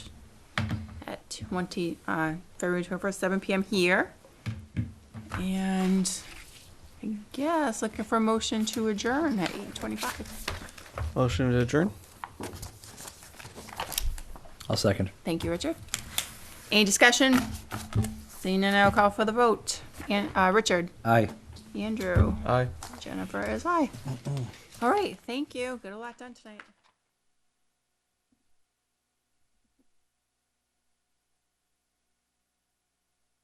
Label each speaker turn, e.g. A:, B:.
A: 20, uh, February 21st, 7 PM here. And I guess looking for a motion to adjourn at 8:25.
B: Motion to adjourn?
C: I'll second.
A: Thank you, Richard. Any discussion? Seeing none, I'll call for the vote. And, uh, Richard,
C: Aye.
A: Andrew,
B: Aye.
A: Jennifer is aye. All right, thank you. Got a lot done tonight.